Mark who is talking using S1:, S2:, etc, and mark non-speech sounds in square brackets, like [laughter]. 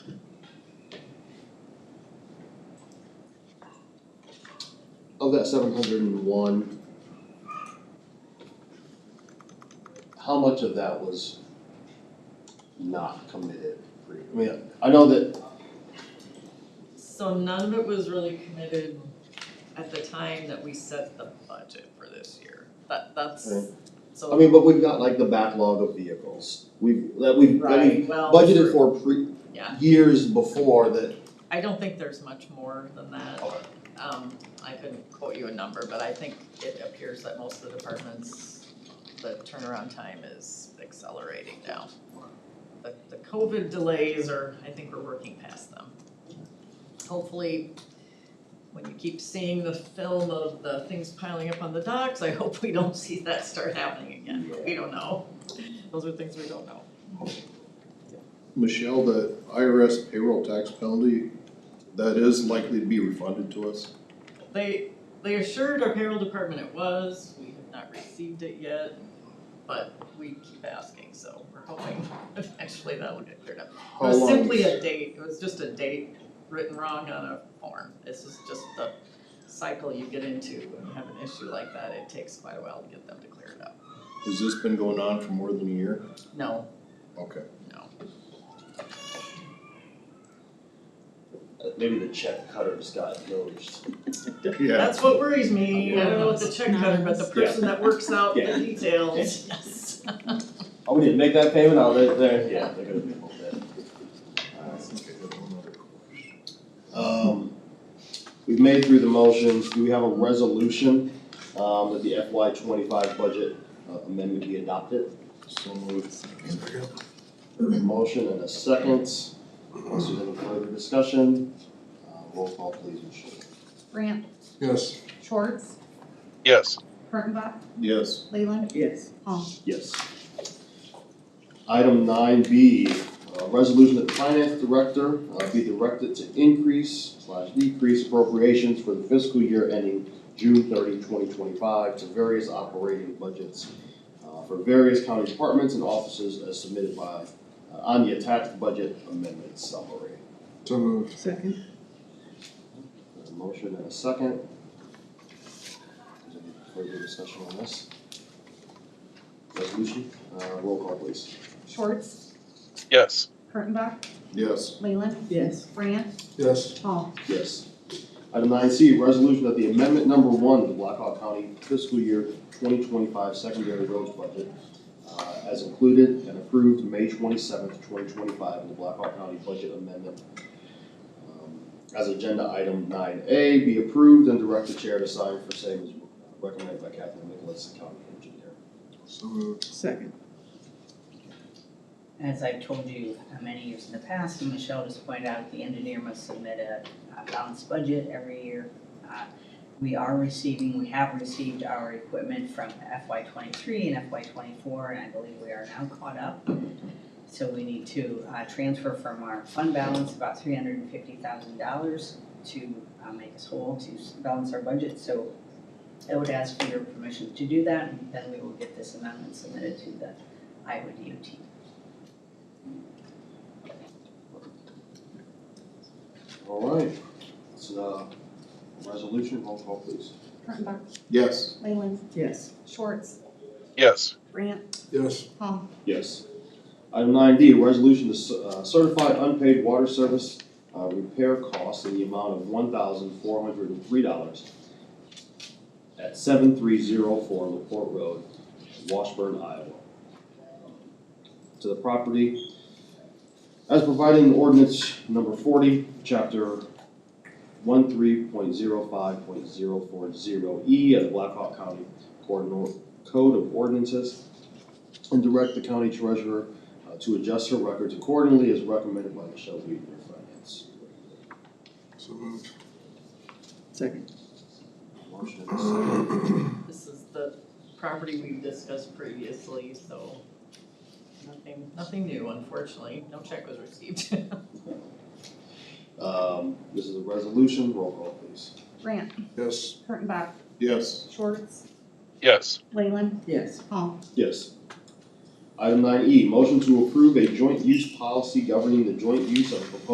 S1: of that seven hundred and one, how much of that was not committed? pre- I mean, I know that,
S2: So none of it was really committed at the time that we set the budget for this year, that, that's,
S1: Right.
S2: so.
S1: I mean, but we've got like the backlog of vehicles, we've, that we've, that we
S2: Right, well.
S1: budgeted for pre,
S2: Yeah.
S1: years before that.
S2: I don't think there's much more than that. Um, I couldn't quote you a number, but I think it appears that most of the departments, the turnaround time is accelerating now. The, the COVID delays are, I think we're working past them. Hopefully, when you keep seeing the film of the things piling up on the docks, I hope we don't see that start happening again, but we don't know. Those are things we don't know.
S3: Michelle, the IRS payroll tax penalty, that is likely to be refunded to us.
S2: They, they assured our payroll department it was, we have not received it yet, but we keep asking, so we're hoping [laughs] eventually that'll get cleared up. It
S3: How
S2: was
S3: long-
S2: simply a date, it was just a date written wrong on a form, this is just the cycle you get into when you have an issue like that, it takes quite a while to get them to clear it up.
S3: Has this been going on for more than a year?
S2: No,
S3: Okay.
S2: no,
S1: Maybe the check cutters got nosed.
S3: Yeah,
S2: that's what worries me, I don't know what the check cutter, but the person that works out the
S1: Yeah.
S2: details, yes. [laughs]
S1: Oh, we didn't make that payment, oh, they're, they're, yeah, they're gonna be a little bit.
S3: I think I have one other question.
S1: Um, we've made through the motions, do we have a resolution, um, that the FY twenty-five budget uh, amendment be adopted?
S3: So moved.
S1: Motion and a second, unless there's any further discussion, uh, roll call please, Michelle.
S4: Grant,
S3: Yes.
S4: Schwartz,
S5: Yes.
S4: Kurttenbach,
S3: Yes.
S4: Leyland,
S2: Yes.
S4: Paul.
S1: Yes. Item nine B, uh, resolution that the finance director uh, be directed to increase slash decrease appropriations for the fiscal year ending June 30, 2025, to various operating budgets uh, for various county departments and offices as submitted by, uh, on the attached budget amendment summary.
S3: So moved.
S6: Second.
S1: There's a motion and a second. Is there any further discussion on this? Resolution, uh, roll call please.
S4: Schwartz,
S5: Yes.
S4: Kurttenbach,
S3: Yes.
S4: Leyland,
S6: Yes.
S4: Grant,
S3: Yes.
S4: Paul.
S1: Yes. Item nine C, resolution that the amendment number one to the Blackhawk County fiscal year twenty twenty-five secondary roads budget uh, as included and approved May twenty-seventh, twenty twenty-five in the Blackhawk County budget amendment. um, As agenda item nine A, be approved and direct the chair to sign for same as recommended by Kathleen Nicholas, county engineer.
S3: So moved.
S6: Second.
S7: As I've told you uh, many years in the past, and Michelle just pointed out, the engineer must submit a a balanced budget every year. Uh, We are receiving, we have received our equipment from FY twenty-three and FY twenty-four, and I believe we are now caught up. So we need to uh, transfer from our fund balance about three hundred and fifty thousand dollars to uh, make us whole, to s- balance our budget. So I would ask for your permission to do that, and then we will get this amendment submitted to the Iowa DOT.
S1: All right, so uh, resolution, roll call please.
S4: Kurttenbach,
S3: Yes.
S4: Leyland,
S6: Yes.
S4: Schwartz,
S5: Yes.
S4: Grant,
S3: Yes.
S4: Paul.
S1: Yes. Item nine D, resolution to cer- uh, certify unpaid water service uh, repair costs in the amount of one thousand four hundred and three dollars at seven three zero four LaPorte Road, Washburn, Iowa. To the property as provided in ordinance number forty, chapter one three point zero five point zero four zero E of the Blackhawk County Code Code of Ordinances and direct the county treasurer uh, to adjust her records accordingly as recommended by Michelle Weaver, Finance.
S3: So moved.
S6: Second.
S1: Motion and a second.
S2: This is the property we've discussed previously, so nothing, nothing new unfortunately, no check was received. [laughs]
S1: Um, This is a resolution, roll call please.
S4: Grant,
S3: Yes.
S4: Kurttenbach,
S3: Yes.
S4: Schwartz,
S5: Yes.
S4: Leyland,
S6: Yes.
S4: Paul.
S1: Yes. Item nine E, motion to approve a joint use policy governing the joint use of proposed